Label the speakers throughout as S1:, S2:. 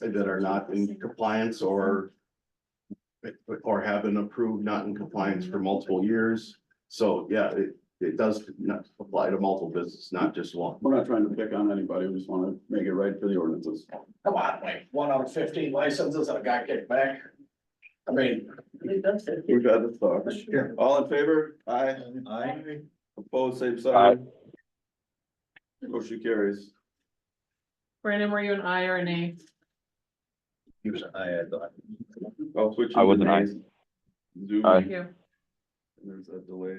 S1: that are not in compliance or. Or have been approved not in compliance for multiple years, so yeah, it, it does not apply to multiple businesses, not just one.
S2: We're not trying to pick on anybody, we just wanna make it right for the ordinances.
S3: Come on, like, one out of fifteen licenses and a guy kicked back. I mean,
S2: We've had the thought. All in favor? Aye.
S3: I,
S2: Opposed, same side. Motion carries.
S4: Brandon, were you an I or an A?
S3: he was, I had,
S2: I'll switch.
S5: I was an aye.
S2: eyes. Zoom.
S5: Aye.
S4: Thank you.
S2: There's that delay.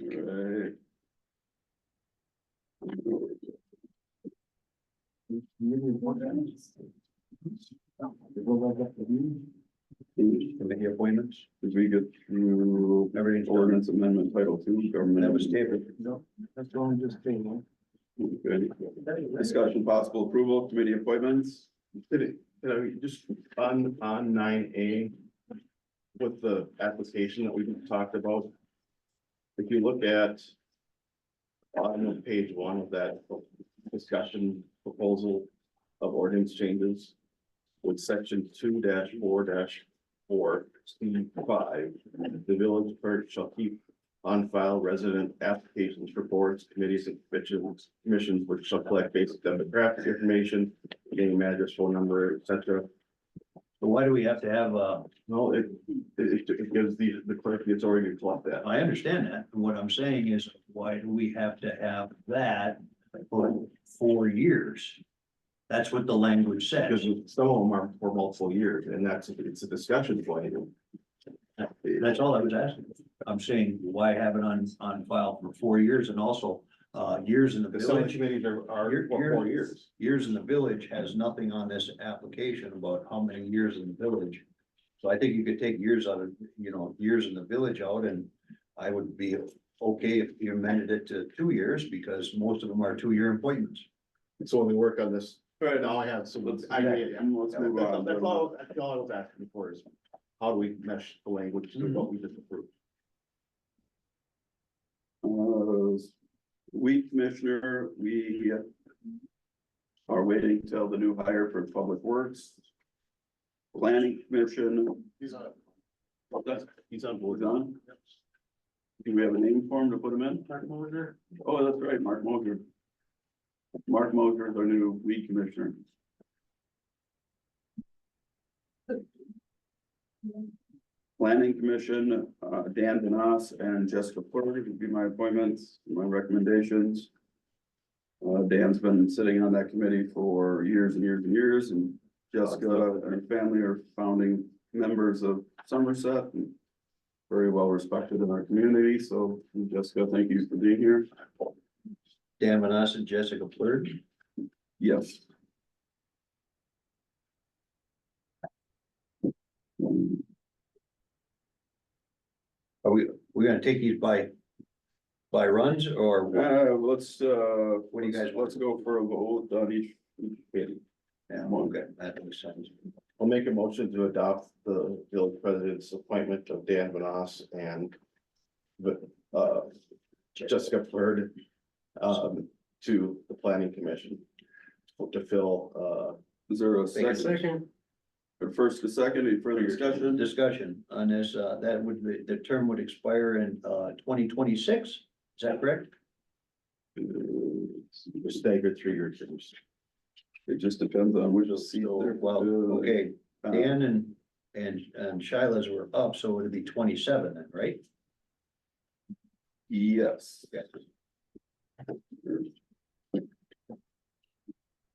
S2: Alright.
S3: committee appointments,
S2: Did we get through
S3: everything's done.
S2: ordinance amendment title two, government?
S3: That was David. No, that's the one just came.
S2: Okay. Discussion possible approval, committee appointments.
S1: Did it, did I- just on, on nine A. With the application that we've talked about. If you look at. On page one of that discussion proposal of ordinance changes. With section two four four, C five, the village clerk shall keep. On file resident applications for boards, committees and commissions, commissions which shall collect basic demographic information name, address, phone number, et cetera.
S3: But why do we have to have, uh,
S1: No, it, it, it gives the, the clerk the authority to collect that.
S3: I understand that, what I'm saying is, why do we have to have that for four years? That's what the language says.
S1: Because some of them are for multiple years and that's, it's a discussion point.
S3: That's all I was asking. I'm saying, why have it on, on file for four years and also, uh, years in the
S1: Because some of the
S3: village?
S1: committees are, are
S3: Year-
S1: for four years.
S3: Years in the village has nothing on this application about how many years in the village. So I think you could take years out of, you know, years in the village out and I would be okay if you amended it to two years because most of them are two-year appointments.
S1: So when we work on this,
S2: Alright,
S1: now I have some.
S2: Let's,
S1: I-
S2: yeah,
S1: yeah, yeah.
S2: let's
S1: That's
S2: move on.
S1: that's all, that's all I was asking for is how do we mesh the language to what we just approved?
S2: Uh, We commissioner, we are waiting till the new hire for Public Works. Planning Commission,
S1: He's on. That's, he's on board.
S2: He's on? do we have a name for him to put him in?
S1: Mark Mulder?
S2: Oh, that's right, Mark Moser. Mark Moser is our new weed commissioner. Planning Commission, uh, Dan Denos and Jessica Porter would be my appointments, my recommendations. Uh, Dan's been sitting on that committee for years and years and years, and Jessica and her family are founding members of Somerset. and Very well respected in our community, so Jessica, thank you for being here.
S3: Dan Manassa and Jessica Plurk.
S2: Yes. Uh,
S3: Are we, we're gonna take these by, by runs or what?
S2: Uh, let's, uh,
S3: What do you guys want?
S2: Let's go for a vote on each.
S3: Yeah, okay, that makes sense.
S1: I'll make a motion to adopt the village president's appointment of Dan Vanas and the, uh, Jessica Flurd um, to the planning commission to fill, uh,
S2: Is there a
S3: Thank you.
S2: second? Or First, a second, any further discussion?
S3: Discussion on this, uh, that would, be- the term would expire in, uh, twenty twenty-six, is that correct?
S1: uh, staggered three-year terms.
S2: It just depends on which seat.
S3: So,
S2: they're-
S3: well,
S2: uh,
S3: okay,
S2: uh,
S3: Dan and, and, and Shila's were up, so it'd be twenty-seven then, right?
S2: Yes.
S3: Yes.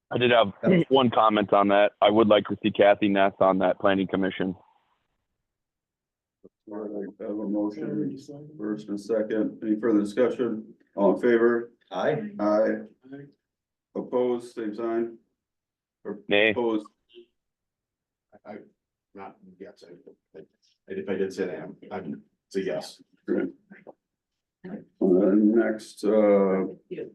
S5: I did have one comment on that. I would like to see Kathy Ness on that planning commission.
S2: All right, I have a motion, first and second, any further discussion? All in favor?
S3: Aye.
S2: Aye. Opposed, same sign? Or
S5: Nay.
S2: opposed,
S1: I, I'm not, yes, I, I- if I did say that, I'm- I'm, it's a yes.
S2: Uh, next, uh,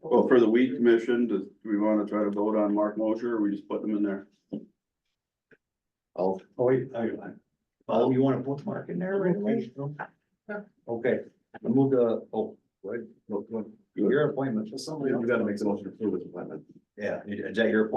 S2: well, for the weed commission, do do we want to try to vote on Mark Mosher, or we just put them in there?
S1: I'll,
S3: Oh, wait, I, I, oh, you want a bookmark in there right away? Okay, we move to, oh, what,
S1: you
S3: your appointment.
S1: gotta make the motion to approve this appointment.
S3: Yeah, is that your appointment?